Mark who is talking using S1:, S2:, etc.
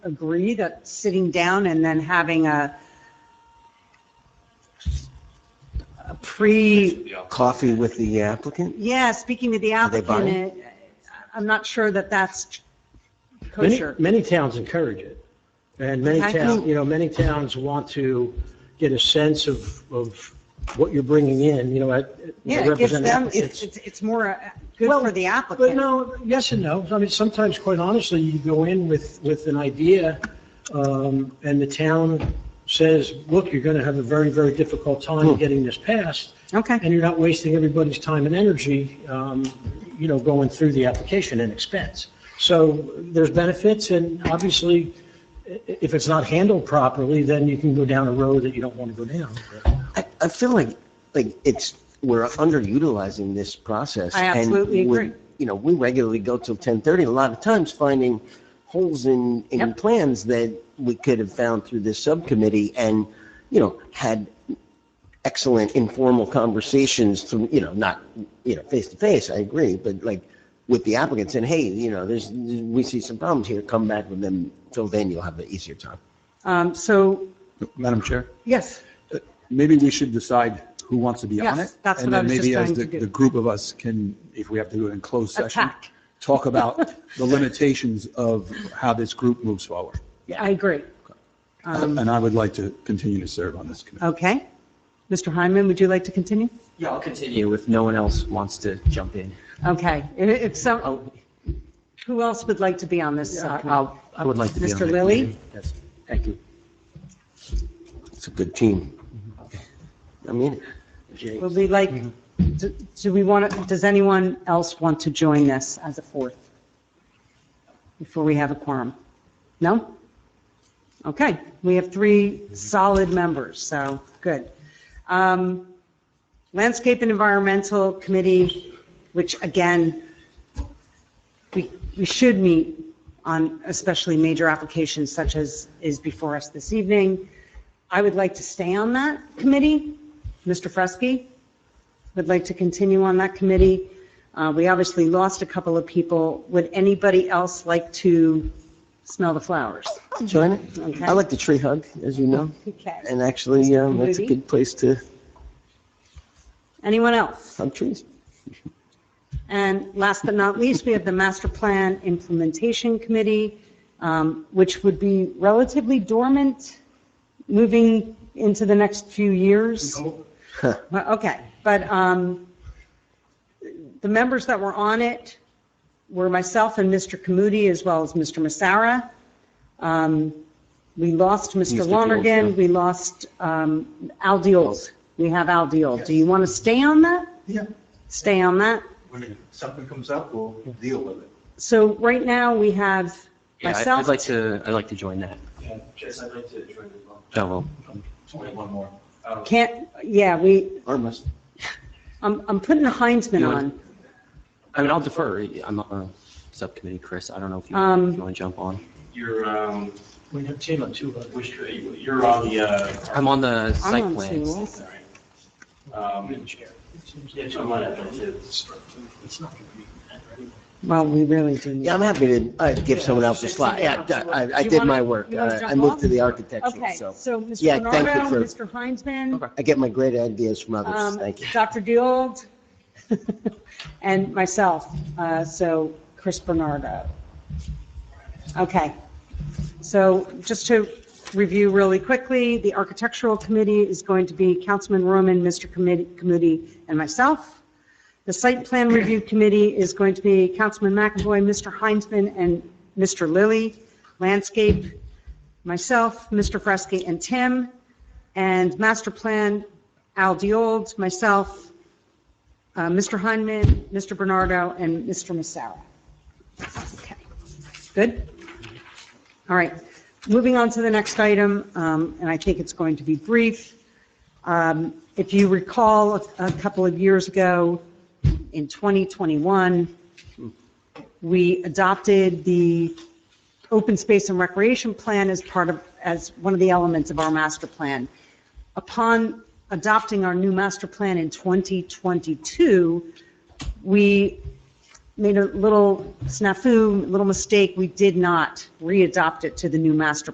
S1: agree that sitting down and then having a a pre,
S2: Yeah.
S3: Coffee with the applicant?
S1: yeah, speaking to the
S3: they
S1: applicant, uh, I'm not sure that that's
S4: Many,
S1: kosher.
S4: many towns encourage it. And many
S1: Okay.
S4: towns, you know, many towns want to get a sense of, of what you're bringing in, you know, at. you know,
S1: Yeah, it gives
S4: represent
S1: them, it's,
S4: applicants.
S1: it's it's more uh, good
S4: Well,
S1: for the
S4: But
S1: applicant.
S4: no, yes and no. I mean, sometimes, quite honestly, you go in with, with an idea, um, and the town says, look, you're gonna have a very, very difficult time getting this passed,
S1: Okay,
S4: and you're not wasting everybody's time and energy, um, you know, going through the application and expense. So there's benefits, and obviously, i- i- if it's not handled properly, then you can go down a road that you don't want to go down.
S3: I, I feel like, like it's, we're underutilizing this process.
S1: I
S3: and
S1: absolutely
S3: we're-
S1: agree.
S3: You know, we regularly go till 10:30, a lot of times finding holes in, in
S1: Yep.
S3: plans that we could have found through this subcommittee and, you know, had excellent informal conversations through, you know, not, you know, face to face, I agree, but like with the applicants and hey, you know, there's, we see some problems here, come back with them. Till then, you'll have an easier time.
S1: um, so,
S5: Madam Chair,
S1: yes,
S5: maybe we should decide who wants to be on it.
S1: Yes, that's what I was just
S5: And
S1: going to
S5: then maybe
S1: do.
S5: as the, the group of us can, if we have to do it in closed session,
S1: Attack.
S5: talk about the limitations of how this group moves forward.
S1: I agree. Um,
S5: And I would like to continue to serve on this committee.
S1: Okay. Mr. Hyman, would you like to continue?
S6: Yeah, I'll continue if no one else wants to jump in.
S1: Okay, if, if some,
S6: I'll-
S1: who else would like to be on this? uh,
S6: I'll, I would like to be on
S1: Mr.
S6: that
S1: Lilly?
S6: committee. Yes, thank you.
S3: It's a good team. I mean, it.
S1: Will we like, do do we want, to? does anyone else want to join this as a fourth? Before we have a quorum? No? Okay, we have three solid members, so, good. Um, Landscape and Environmental Committee, which again, we, we should meet on especially major applications such as is before us this evening. I would like to stay on that committee. Mr. Fresky would like to continue on that committee. Uh, We obviously lost a couple of people. Would anybody else like to smell the flowers?
S3: Join it.
S1: Okay.
S3: I like the tree hug, as you know,
S1: Okay.
S3: and actually, um, that's a
S1: Movie?
S3: good place to
S1: Anyone else?
S3: hug trees.
S1: And last but not least, we have the Master Plan Implementation Committee, um, which would be relatively dormant moving into the next few years. Well, Okay, but um, the members that were on it were myself and Mr. Kamudi, as well as Mr. Massara. Um, We lost Mr.
S3: Mr. Diold,
S1: Lonergan,
S3: yeah.
S1: we lost um, Al Diold. We have Al Diold. Do you want to stay on that?
S7: Yeah,
S1: Stay on that?
S7: when something comes up, we'll deal with it.
S1: So right now, we have
S6: Yeah, I- I'd
S1: myself.
S6: like to, I'd like to join that.
S7: Yeah, Chris, I'd like to join as well.
S6: Oh, well,
S7: Only one more. Uh,
S1: Can't, yeah, we,
S3: Armless.
S1: I'm, I'm putting a Heinzman
S6: You wanna-
S1: on.
S6: I mean, I'll defer. I'm on a subcommittee, Chris. I don't know if you
S1: Um,
S6: if you want to jump on.
S7: You're, um,
S4: We have ten on two, others.
S7: which, you're on the, uh,
S6: I'm on the
S1: I'm
S6: site
S1: on two
S6: plans.
S1: also.
S7: sorry. Um, yeah, I'm on it.
S1: Well, we really do need.
S3: Yeah, I'm happy to uh, give someone else a slot. Yeah, I, I
S1: You
S3: did
S1: wanna-
S3: my work.
S1: you wanna
S3: Uh, I
S1: jump
S3: moved
S1: off?
S3: to the architecture,
S1: Okay,
S3: so
S1: so Mr.
S3: Yeah, thank you
S1: Bernardo,
S3: for-
S1: Mr. Heinzman,
S3: I get my great ideas from others.
S1: um,
S3: Thank you.
S1: Dr. Deold, and myself, uh, so Chris Bernardo. Okay, so just to review really quickly, the Architectural Committee is going to be Councilman Roman, Mr. Committee- Committee, and myself. The Site Plan Review Committee is going to be Councilman McAvoy, Mr. Heinzman, and Mr. Lilly. Landscape, myself, Mr. Fresky, and Tim. And Master Plan, Al Diold, myself, uh, Mr. Heinman, Mr. Bernardo, and Mr. Massara. Okay, Good? All right, moving on to the next item, um, and I think it's going to be brief. Um, If you recall, a- a couple of years ago, in 2021, we adopted the open space and recreation plan as part of, as one of the elements of our master plan. Upon adopting our new master plan in 2022, we made a little snafu, little mistake. We did not re-adopt it to the new master